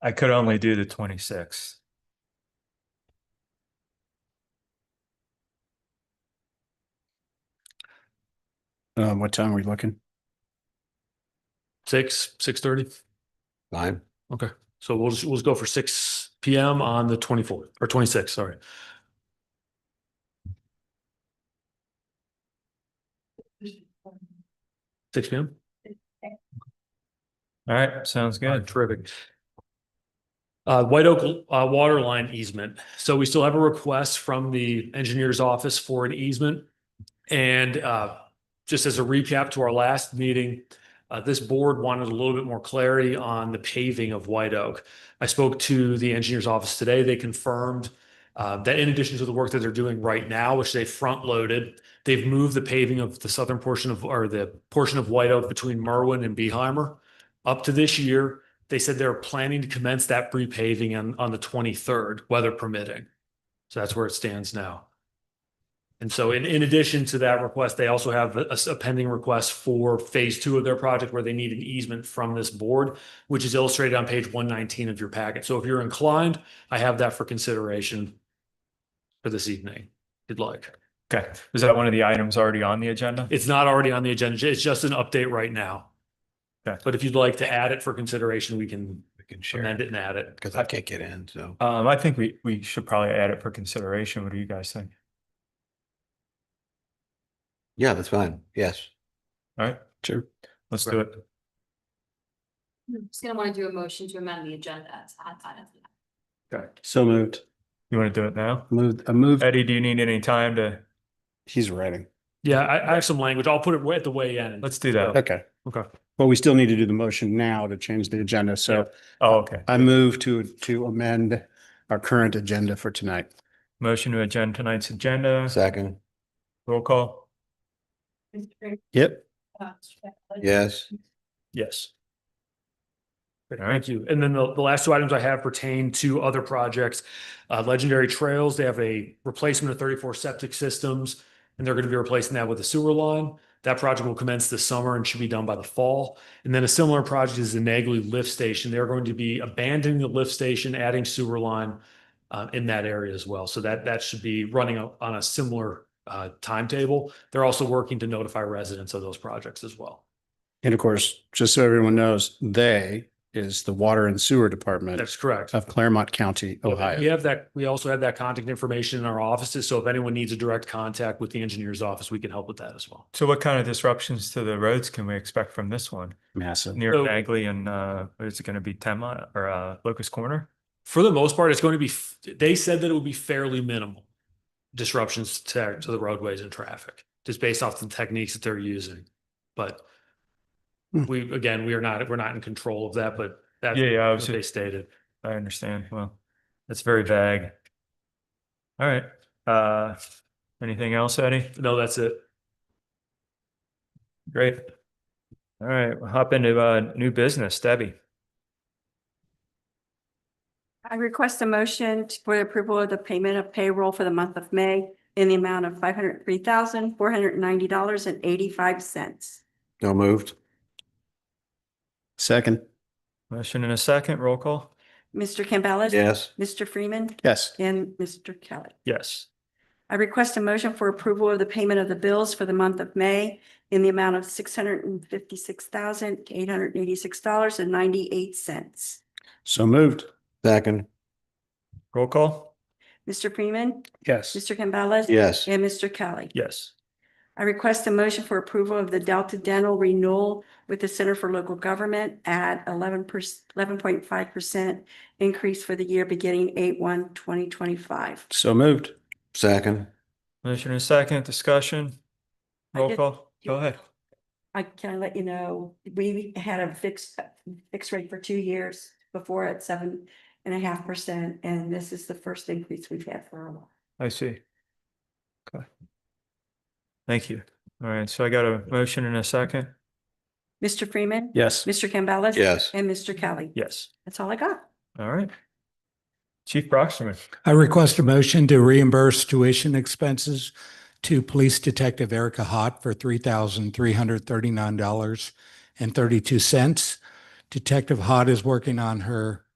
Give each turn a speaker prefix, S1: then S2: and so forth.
S1: I could only do the twenty-sixth.
S2: Um, what time are we looking?
S3: Six, six thirty.
S4: Fine.
S3: Okay, so we'll just, we'll just go for six P M on the twenty fourth or twenty sixth, sorry. Six P M?
S1: All right, sounds good.
S3: Terrific. Uh, White Oak, uh, water line easement. So we still have a request from the engineer's office for an easement. And, uh, just as a recap to our last meeting, uh, this board wanted a little bit more clarity on the paving of White Oak. I spoke to the engineer's office today. They confirmed, uh, that in addition to the work that they're doing right now, which they front loaded, they've moved the paving of the southern portion of, or the portion of White Oak between Merwin and Beeheimer up to this year. They said they're planning to commence that repaving on, on the twenty-third, weather permitting. So that's where it stands now. And so in, in addition to that request, they also have a, a pending request for phase two of their project where they need an easement from this board, which is illustrated on page one nineteen of your packet. So if you're inclined, I have that for consideration for this evening, if you'd like.
S1: Okay, is that one of the items already on the agenda?
S3: It's not already on the agenda. It's just an update right now.
S1: Okay.
S3: But if you'd like to add it for consideration, we can
S4: We can share
S3: amend it and add it.
S4: because I can't get in. So
S1: Um, I think we, we should probably add it for consideration. What do you guys think?
S4: yeah, that's fine. Yes.
S1: All right,
S2: Sure.
S1: let's do it.
S5: I'm Just gonna wanna do a motion to amend the agenda. to add that into that.
S2: So moved.
S1: You want to do it now?
S2: Moved, I moved.
S1: Eddie, do you need any time to,
S2: He's writing.
S3: Yeah, I, I have some language. I'll put it way at the way in.
S1: let's do that.
S2: Okay.
S3: Okay.
S2: Well, we still need to do the motion now to change the agenda. So
S1: Oh, okay.
S2: I move to, to amend our current agenda for tonight.
S1: Motion to adjourn tonight's agenda,
S4: Second.
S1: roll call?
S2: Yep.
S4: Yes.
S3: Yes.
S1: All right.
S3: Thank you. And then the, the last two items I have pertain to other projects. Uh, Legendary Trails, they have a replacement of thirty-four septic systems, and they're going to be replacing that with a sewer line. That project will commence this summer and should be done by the fall. And then a similar project is the Nagley Lift Station. They're going to be abandoning the lift station, adding sewer line uh, in that area as well. So that, that should be running on on a similar uh, timetable. They're also working to notify residents of those projects as well.
S2: And of course, just so everyone knows, they is the Water and Sewer Department
S3: That's correct.
S2: of Claremont County,
S1: Oh,
S3: Yeah, We
S2: Ohio.
S3: have that, we also have that contact information in our offices, so if anyone needs a direct contact with the engineer's office, we can help with that as well.
S1: So what kind of disruptions to the roads can we expect from this one?
S2: Massive.
S1: Near
S3: So-
S1: Bagley and, uh, is it going to be Tema or, uh, Locust Corner?
S3: For the most part, it's going to be, f- they said that it would be fairly minimal disruptions to, to the roadways and traffic, just based off the techniques that they're using. But
S2: Hmm.
S3: we, again, we are not, we're not in control of that, but that's
S1: Yeah, yeah, I was
S3: what they
S1: just,
S3: stated.
S1: I understand. Well, that's very vague. All right, uh, anything else, Eddie?
S3: No, that's it.
S1: Great. All right, we'll hop into uh new business, Debbie.
S6: I request a motion t- for the approval of the payment of payroll for the month of May in the amount of five hundred three thousand, four hundred ninety dollars and eighty-five cents.
S4: No moved.
S2: Second.
S1: Motion in a second, roll call?
S6: Mr. Campbell.
S4: Yes.
S6: Mr. Freeman
S2: Yes.
S6: and Mr. Kelly.
S1: Yes.
S6: I request a motion for approval of the payment of the bills for the month of May in the amount of six hundred and fifty-six thousand, eight hundred eighty-six dollars and ninety-eight cents.
S2: So moved.
S4: Second.
S1: Roll call?
S6: Mr. Freeman,
S2: Yes.
S6: Mr. Campbell.
S4: Yes.
S6: And Mr. Kelly.
S1: Yes.
S6: I request a motion for approval of the Delta Dental renewal with the Center for Local Government at eleven percent, eleven point five percent increase for the year beginning eight one twenty twenty-five.
S2: So moved.
S4: Second.
S1: Motion in a second, discussion?
S6: I
S1: Roll
S6: did-
S1: call? Go ahead.
S6: I can I let you know, we had a fixed, fixed rate for two years before at seven and a half percent, and this is the first increase we've had for a while.
S1: I see. Okay. Thank you. All right, so I got a motion in a second?
S6: Mr. Freeman?
S2: Yes.
S6: Mr. Campbell?
S4: Yes.
S6: And Mr. Kelly?
S1: Yes.
S6: That's all I got.
S1: All right. Chief Brockstrom,
S7: I request a motion to reimburse tuition expenses to Police Detective Erica Hott for three thousand three hundred thirty-nine dollars and thirty-two cents. Detective Hott is working on her